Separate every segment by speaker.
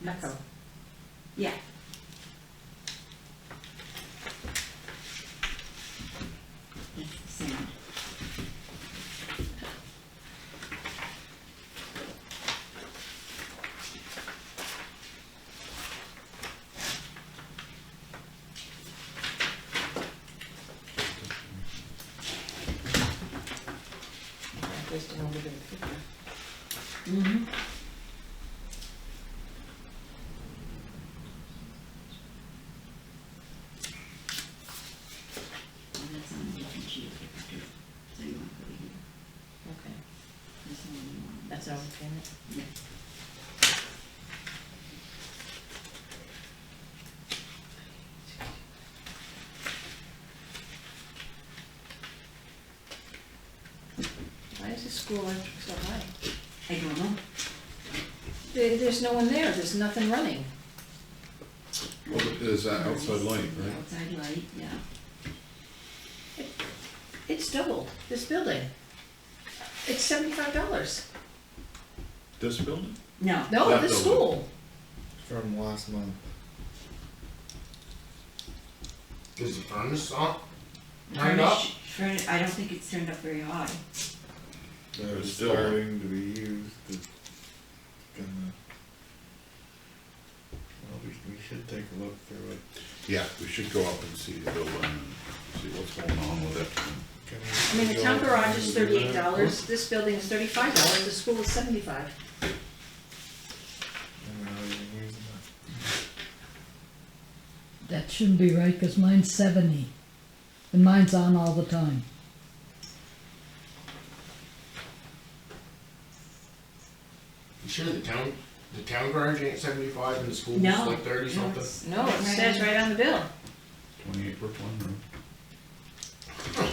Speaker 1: Mecco.
Speaker 2: Yeah. That's the same.
Speaker 1: Just an older picture.
Speaker 2: Mm-hmm. And that's on a different sheet. So you want to put it here.
Speaker 1: Okay,
Speaker 2: This one you want.
Speaker 1: that's our payment.
Speaker 2: Yeah.
Speaker 3: Why is the school electric so high?
Speaker 2: I don't know.
Speaker 3: There, there's no one there, there's nothing running.
Speaker 4: Well, there's that outside light,
Speaker 2: The
Speaker 4: right?
Speaker 2: Outside light, yeah.
Speaker 3: It's doubled, this building. It's seventy-five dollars.
Speaker 4: This building?
Speaker 2: No,
Speaker 3: No,
Speaker 4: That
Speaker 3: the
Speaker 4: building.
Speaker 3: school.
Speaker 5: From last month.
Speaker 6: Is the furnace on? Turned up?
Speaker 2: Furnish- furni- I don't think it's turned up very high.
Speaker 5: They're
Speaker 4: It's still-
Speaker 5: starting to be used, it's gonna. Well, we, we should take a look through it.
Speaker 4: Yeah, we should go up and see the building and see what's going on with it.
Speaker 5: Can
Speaker 3: I
Speaker 5: we
Speaker 3: mean, the
Speaker 5: go
Speaker 3: town
Speaker 5: up
Speaker 3: garage
Speaker 5: and
Speaker 3: is
Speaker 5: do
Speaker 3: thirty-eight
Speaker 5: that?
Speaker 3: dollars, this building is thirty-five dollars, the school is seventy-five.
Speaker 5: And we're not even using it.
Speaker 7: That shouldn't be right, because mine's seventy, and mine's on all the time.
Speaker 6: You sure the town, the town garage ain't seventy-five and the school's
Speaker 2: No.
Speaker 6: like thirty
Speaker 2: no,
Speaker 6: something?
Speaker 2: it's-
Speaker 3: No, it says right on the bill.
Speaker 4: Twenty-eight Brookline Road.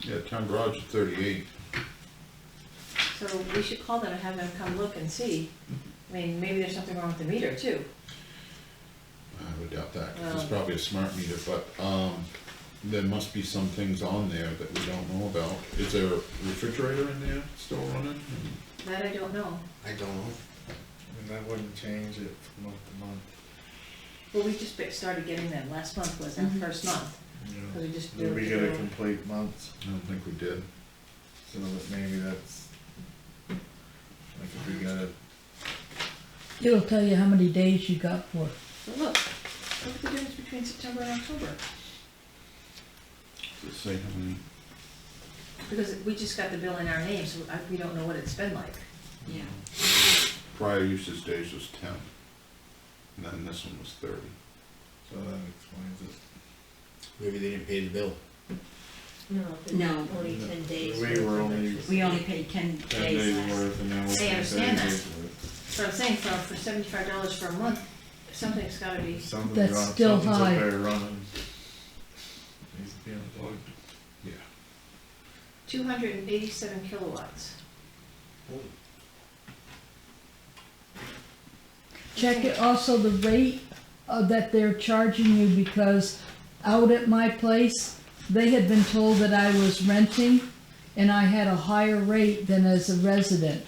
Speaker 4: Yeah, town garage is thirty-eight.
Speaker 3: So we should call them and have them come look and see. I mean, maybe there's something wrong with the meter too.
Speaker 4: I would doubt that, 'cause
Speaker 3: Well-
Speaker 4: it's probably a smart meter, but, um, there must be some things on there that we don't know about. Is there a refrigerator in there still running?
Speaker 3: That I don't know.
Speaker 6: I don't know.
Speaker 5: I mean, that wouldn't change it from month to month,
Speaker 3: Well, we just ba- started getting them, last month was our
Speaker 2: Mhm.
Speaker 3: first month,
Speaker 5: you
Speaker 3: because we just.
Speaker 5: know. We
Speaker 3: built
Speaker 5: get a
Speaker 3: it.
Speaker 5: complete month,
Speaker 4: I don't think we did.
Speaker 5: so that maybe that's, like if we got a
Speaker 7: It'll tell you how many days you got for it.
Speaker 3: But look, look at the difference between September and October,
Speaker 4: Does it say how many?
Speaker 3: because we just got the bill in our name, so I- we don't know what it's been like.
Speaker 2: Yeah,
Speaker 4: Prior usage days was ten, and then this one was thirty.
Speaker 5: So that explains it.
Speaker 6: Maybe they didn't pay the bill.
Speaker 1: No, it's
Speaker 2: No.
Speaker 1: only ten days.
Speaker 5: We were only
Speaker 2: we only paid ten
Speaker 5: ten
Speaker 2: days
Speaker 5: days
Speaker 2: last.
Speaker 5: worth and now we're
Speaker 3: Hey, I
Speaker 5: paying thirty
Speaker 3: understand that.
Speaker 5: days worth.
Speaker 3: So I'm saying for, for seventy-five dollars for a month, something's gotta be,
Speaker 5: Something's
Speaker 7: That's
Speaker 5: wrong-
Speaker 7: still
Speaker 5: something's up
Speaker 7: high.
Speaker 5: there running. Needs to be unplugged.
Speaker 4: Yeah.
Speaker 3: two hundred and eighty-seven kilowatts.
Speaker 7: Check it also the rate uh, that they're charging you, because out at my place, they had been told that I was renting, and I had a higher rate than as a resident.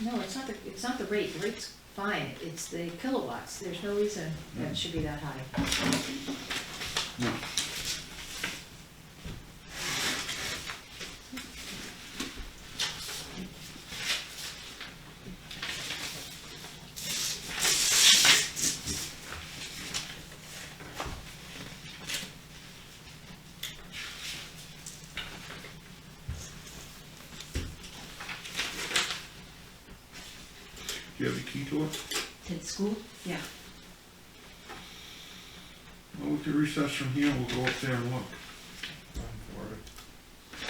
Speaker 3: No, it's not the, it's not the rate, the rate's fine, it's the kilowatts, there's no reason that it should be that high.
Speaker 4: Do you have the key to it?
Speaker 2: To the school? Yeah.
Speaker 4: Well, we could recess from here, we'll go up there and look.
Speaker 5: Time for it.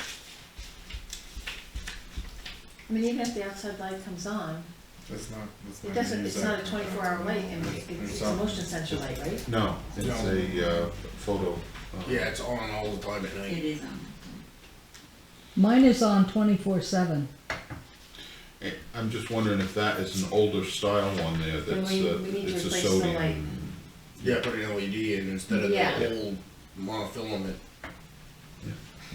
Speaker 3: I mean, even if the outside light comes on,
Speaker 5: That's not, that's not.
Speaker 3: it
Speaker 5: gonna
Speaker 3: doesn't,
Speaker 5: use
Speaker 3: it's
Speaker 5: that
Speaker 3: not a twenty-four hour light, and
Speaker 5: There's
Speaker 3: it- it's a
Speaker 5: something.
Speaker 3: motion sensor light, right?
Speaker 4: No, it's
Speaker 6: No.
Speaker 4: a uh, photo. uh,
Speaker 6: Yeah, it's on all the time at
Speaker 2: It
Speaker 6: night.
Speaker 2: is on.
Speaker 7: Mine is on twenty-four seven.
Speaker 4: eh, I'm just wondering if that is an older style one there that's,
Speaker 3: we-
Speaker 4: uh,
Speaker 3: we need to
Speaker 4: it's a
Speaker 3: replace the light.
Speaker 4: sodium.
Speaker 6: Yeah, put an LED E in instead of
Speaker 3: Yeah.
Speaker 6: the old monofilament.